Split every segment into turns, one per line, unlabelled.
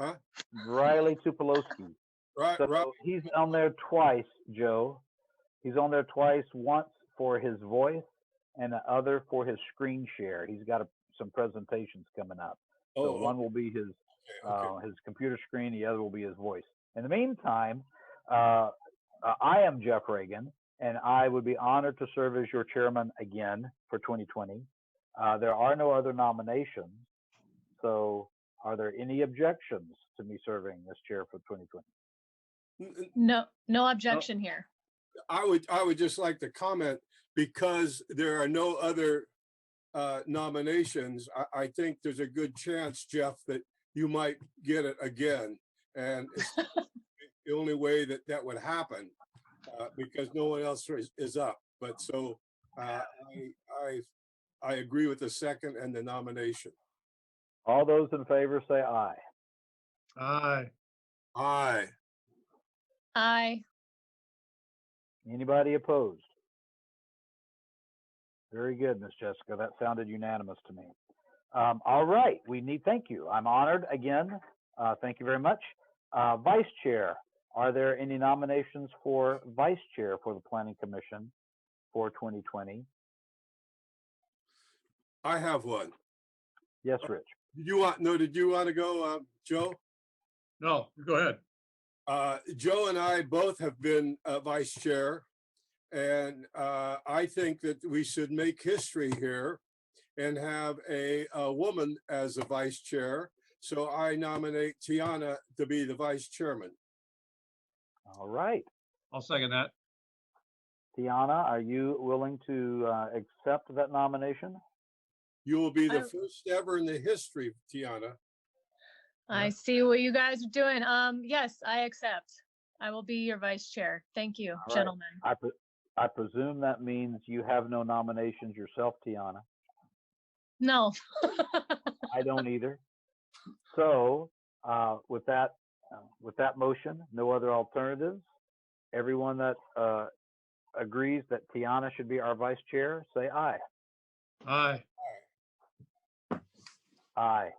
Huh?
Riley Tupeloski.
Right, right.
So he's on there twice, Joe. He's on there twice, once for his voice and the other for his screen share. He's got a, some presentations coming up. So
Oh,
one will be his
okay, okay.
uh, his computer screen, the other will be his voice. In the meantime, uh, uh, I am Jeff Reagan, and I would be honored to serve as your chairman again for 2020. Uh, there are no other nominations, so are there any objections to me serving as chair for 2020?
N- n-
No, no objection here.
I would, I would just like to comment, because there are no other uh, nominations, I, I think there's a good chance, Jeff, that you might get it again. And it's the only way that that would happen, uh, because no one else is, is up. But so uh, I, I, I agree with the second and the nomination.
All those in favor say aye.
Aye.
Aye.
Aye.
Anybody opposed? Very good, Miss Jessica. That sounded unanimous to me. Um, all right, we need, thank you. I'm honored again. Uh, thank you very much. Uh, Vice Chair, are there any nominations for Vice Chair for the Planning Commission for 2020?
I have one.
Yes, Rich.
Did you want, no, did you want to go, uh, Joe?
No, go ahead.
Uh, Joe and I both have been uh, vice chair. And uh, I think that we should make history here and have a, a woman as a vice chair. So I nominate Tiana to be the vice chairman.
All right.
I'll second that.
Tiana, are you willing to uh, accept that nomination?
You will be the
I-
first ever in the history, Tiana.
I see what you guys are doing. Um, yes, I accept. I will be your vice chair. Thank you,
right.
gentlemen.
I, pre- I presume that means you have no nominations yourself, Tiana.
No.
I don't either. So, uh, with that, uh, with that motion, no other alternatives. Everyone that, uh, agrees that Tiana should be our vice chair, say aye.
Aye.
Aye.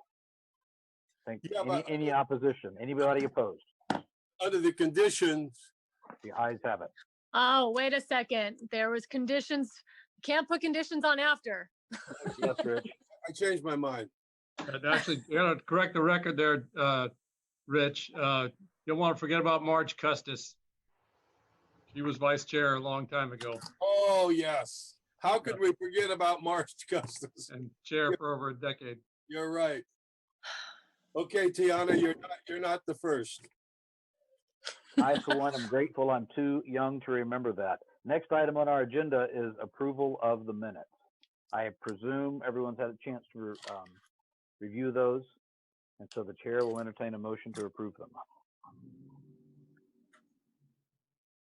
Thank,
Yeah,
any,
but-
any opposition? Anybody opposed?
Under the conditions,
The ayes have it.
Oh, wait a second. There was conditions. Can't put conditions on after.
Yes, Rich.
I changed my mind.
And Actually, you know, to correct the record there, uh, Rich. Uh, you don't want to forget about Marge Custis. She was vice chair a long time ago
Oh, yes. How could we forget about March Custis?
and chair for over a decade.
You're right. Okay, Tiana, you're not, you're not the first.
I, for one, am grateful I'm too young to remember that. Next item on our agenda is approval of the minutes. I presume everyone's had a chance to re- um, review those, and so the chair will entertain a motion to approve them.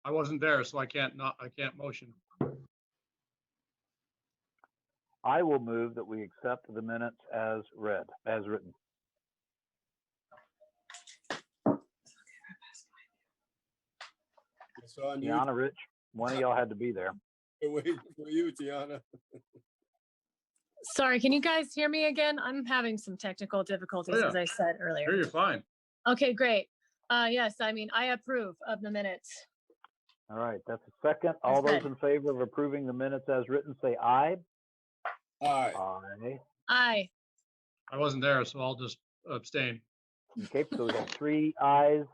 I wasn't there, so I can't not, I can't motion.
I will move that we accept the minutes as read, as written.
It's on you.
Deanna, Rich, one of y'all had to be there.
We're waiting for you, Tiana.
Sorry, can you guys hear me again? I'm having some technical difficulties,
yeah.
as I said
Here,
earlier.
you're fine.
Okay, great. Uh, yes, I mean, I approve of the minutes.
All right, that's a second. All
That's
those in favor of approving the minutes as written, say aye.
Aye.
Aye.
Aye.
I wasn't there, so I'll just abstain.
Okay, so we have three ayes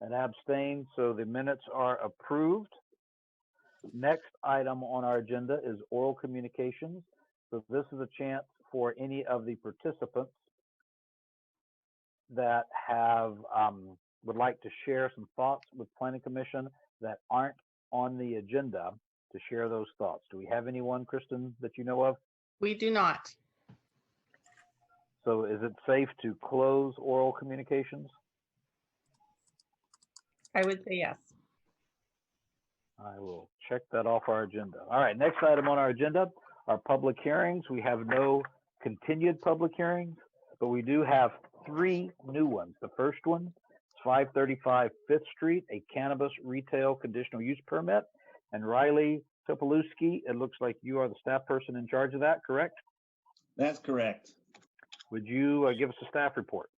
and abstain, so the minutes are approved. Next item on our agenda is oral communications. So this is a chance for any of the participants that have, um, would like to share some thoughts with planning commission that aren't on the agenda to share those thoughts. Do we have anyone, Kristen, that you know of?
We do not.
So is it safe to close oral communications?
I would say yes.
I will check that off our agenda. All right, next item on our agenda are public hearings. We have no continued public hearings, but we do have three new ones. The first one is 535 Fifth Street, a cannabis retail conditional use permit. And Riley Topolowski, it looks like you are the staff person in charge of that, correct?
That's correct.
Would you uh, give us a staff report?